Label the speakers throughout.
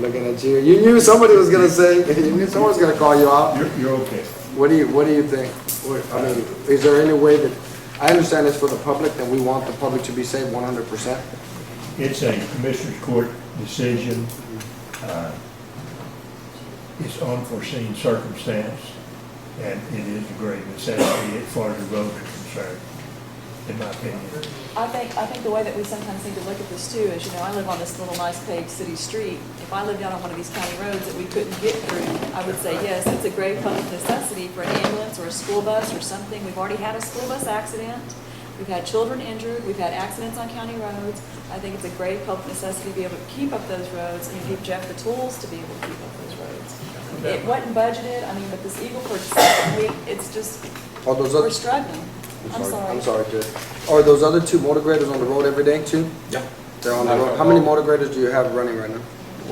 Speaker 1: Looking at you, you knew somebody was gonna say, you knew someone was gonna call you out.
Speaker 2: You're, you're okay.
Speaker 1: What do you, what do you think? What- I mean, is there any way that, I understand it's for the public, that we want the public to be safe one hundred percent?
Speaker 2: It's a commissioner's court decision. Uh, It's unforeseen circumstance, and it is a great necessity as far as the road is concerned, in my opinion.
Speaker 3: I think, I think the way that we sometimes need to look at this too is, you know, I live on this little nice paved city street. If I lived out on one of these county roads that we couldn't get through, I would say, yes, it's a grave public necessity for an ambulance or a school bus or something. We've already had a school bus accident. We've had children injured. We've had accidents on county roads. I think it's a grave public necessity to be able to keep up those roads and give Jeff the tools to be able to keep up those roads. It wasn't budgeted, I mean, but this Eagle Ford stuff, we, it's just,
Speaker 1: All those
Speaker 3: we're
Speaker 1: other,
Speaker 3: struggling. I'm sorry.
Speaker 1: I'm sorry, Judge. Are those other two motor graders on the road every day too?
Speaker 4: Yeah.
Speaker 1: They're on the road. How many motor graders do you have running right now?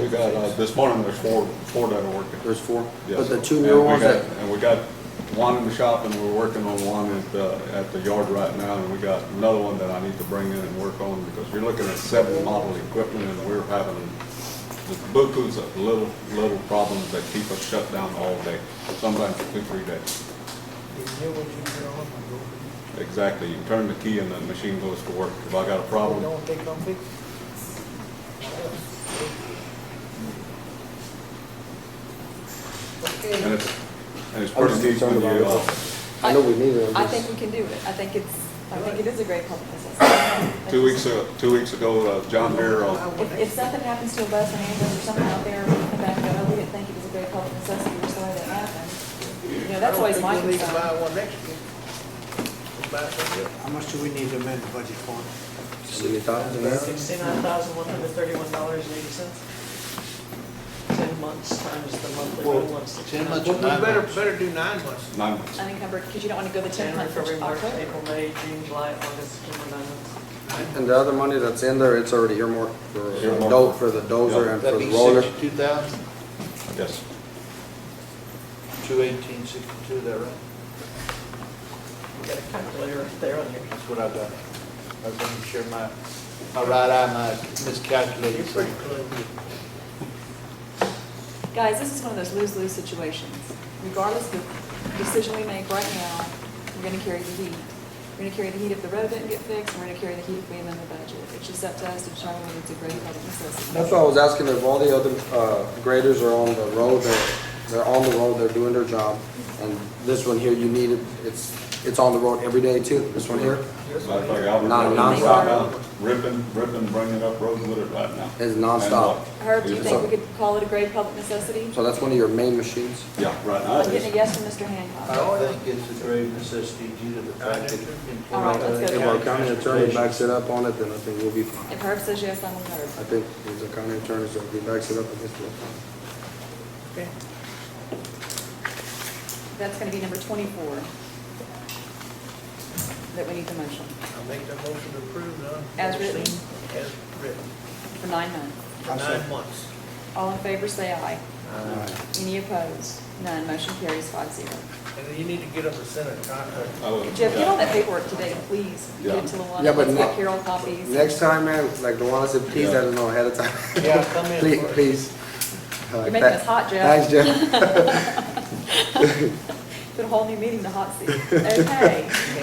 Speaker 4: We got, uh, this morning, there's four, four that are working.
Speaker 1: There's four? But
Speaker 4: Yes.
Speaker 1: the two
Speaker 4: And
Speaker 1: newer
Speaker 4: we
Speaker 1: ones
Speaker 4: got-
Speaker 1: that,
Speaker 4: And we got one in the shop and we're working on one at, uh, at the yard right now. And we got another one that I need to bring in and work on because you're looking at seven model equipment and we're having the bukus of little, little problems that keep us shut down all day, sometimes two, three days. Exactly. You turn the key and the machine goes to work. If I got a problem, and it's, and it's
Speaker 1: I was
Speaker 4: pretty deep
Speaker 1: concerned
Speaker 4: when you,
Speaker 1: about
Speaker 4: uh,
Speaker 1: it. I know we need it.
Speaker 3: I think we can do it. I think it's, I think it is a great public necessity.
Speaker 4: Two weeks, a- two weeks ago, uh, John Deere, uh,
Speaker 3: If, if something happens to a bus or ambulance or something out there, we can come back and go, oh, we didn't think it was a great public necessity, we're sorry that happened. You know, that's always my
Speaker 5: I don't think we'll need to
Speaker 3: concern.
Speaker 5: buy one next year. We'll buy some.
Speaker 6: How much do we need to amend the budget for?
Speaker 1: Seventy thousand there?
Speaker 7: Sixty-nine thousand, one hundred thirty-one dollars and eighty cents. Ten months times the monthly
Speaker 6: Well,
Speaker 7: rental of
Speaker 6: ten
Speaker 7: sixty-nine.
Speaker 6: months.
Speaker 5: Well, we better, better do nine months.
Speaker 4: nine months.
Speaker 3: Unencumbered, because you don't want to go the ten
Speaker 7: January,
Speaker 3: months for
Speaker 7: February, March,
Speaker 3: October.
Speaker 7: April, May, June, July, August, September, nine months.
Speaker 1: And the other money that's in there, it's already earmarked for
Speaker 4: Earmarked.
Speaker 1: do- for the dozer
Speaker 4: Yeah.
Speaker 1: and for
Speaker 6: That'd
Speaker 1: the
Speaker 6: be
Speaker 1: roller.
Speaker 6: sixty-two thousand,
Speaker 4: Yes.
Speaker 6: two eighteen, sixty-two, is that right?
Speaker 7: You got a calculator right there on your.
Speaker 6: That's what I've done. I've been sure my, my right eye might miscalculate.
Speaker 5: You're pretty close.
Speaker 3: Guys, this is one of those lose-lose situations. Regardless of the decision we make right now, we're going to carry the heat. We're going to carry the heat if the road doesn't get fixed, and we're going to carry the heat if we amend the budget. It's just up to us to determine whether it's a great public necessity.
Speaker 1: That's why I was asking if all the other uh, graders are on the road, they're, they're on the road, they're doing their job. And this one here, you need it, it's, it's on the road every day too, this one here
Speaker 4: Matter of fact, I was
Speaker 1: Non-
Speaker 4: running
Speaker 1: nonstop.
Speaker 4: right now, Ripping, ripping, bringing up roads with it right now. uh,
Speaker 1: is nonstop.
Speaker 3: Herb, do
Speaker 1: So-
Speaker 3: you think we could call it a grave public necessity?
Speaker 1: So that's one of your main machines?
Speaker 4: Yeah, right
Speaker 3: I'm
Speaker 4: now it
Speaker 3: getting a
Speaker 4: is.
Speaker 3: yes from Mr.
Speaker 6: I
Speaker 3: Hancock.
Speaker 6: don't think it's a grave necessity due to the fact that.
Speaker 3: All right, let's
Speaker 1: If
Speaker 3: go.
Speaker 1: our county attorney backs it up on it, then I think we'll be fine.
Speaker 3: If Herb says yes, I'm with
Speaker 1: I
Speaker 3: Herb.
Speaker 1: think if the county attorney, so if he backs it up, I guess we'll be fine.
Speaker 5: Okay.
Speaker 3: That's going to be number 24 that we need the motion
Speaker 5: I'll make the motion to approve now.
Speaker 3: As written.
Speaker 5: As written,
Speaker 3: for nine months.
Speaker 5: for nine months.
Speaker 3: All in favor, say aye.
Speaker 1: Alright.
Speaker 3: Any opposed? None. Motion carries five zero.
Speaker 5: And then you need to get them to send a contract.
Speaker 4: I was-
Speaker 3: Jeff, get all that paperwork today, please. Get it to
Speaker 1: Yeah,
Speaker 3: Luana.
Speaker 1: but
Speaker 3: Let's
Speaker 1: ne-
Speaker 3: get Carol copies.
Speaker 1: Next time, man, like Luana said, please
Speaker 4: Yeah.
Speaker 1: let us know ahead of time.
Speaker 5: Yeah, come in
Speaker 1: Please,
Speaker 5: for it.
Speaker 1: please. All
Speaker 3: You're
Speaker 1: right,
Speaker 3: making
Speaker 1: tha-
Speaker 3: us hot, Jeff.
Speaker 1: Thanks, Jeff.
Speaker 3: Put a whole new meeting in the hot seat. Okay.
Speaker 5: Okay,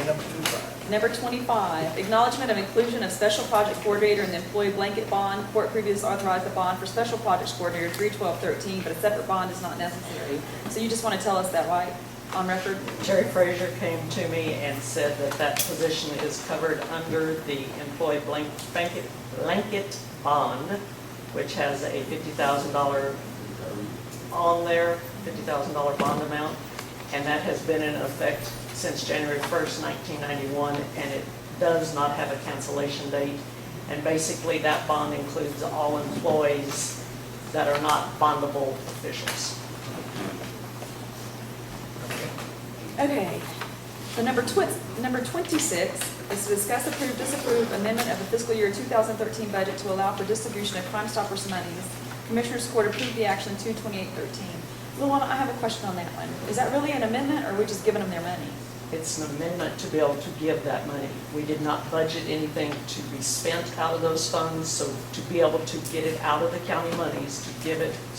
Speaker 5: number two, five.
Speaker 3: Number 25, acknowledgement of inclusion of special project coordinator in the employee blanket bond. Court previously authorized the bond for special projects coordinator 31213, but a separate bond is not necessary. So you just want to tell us that, right, on record?
Speaker 7: Terry Frazier came to me and said that that position is covered under the employee blank- blanket, blanket bond, which has a fifty thousand dollar on there, fifty thousand dollar bond amount, and that has been in effect since January first, nineteen ninety-one, and it does not have a cancellation date. And basically, that bond includes all employees that are not bondable officials.
Speaker 3: Okay. The number twi, number 26 is to discuss, approve, disapprove amendment of the fiscal year 2013 budget to allow for distribution of Crime Stoppers monies. Commissioners Court approved the action 22813. Luana, I have a question on that one. Is that really an amendment, or are we just giving them their money?
Speaker 7: It's an amendment to be able to give that money. We did not budget anything to be spent out of those funds, so to be able to get it out of the county monies, to give it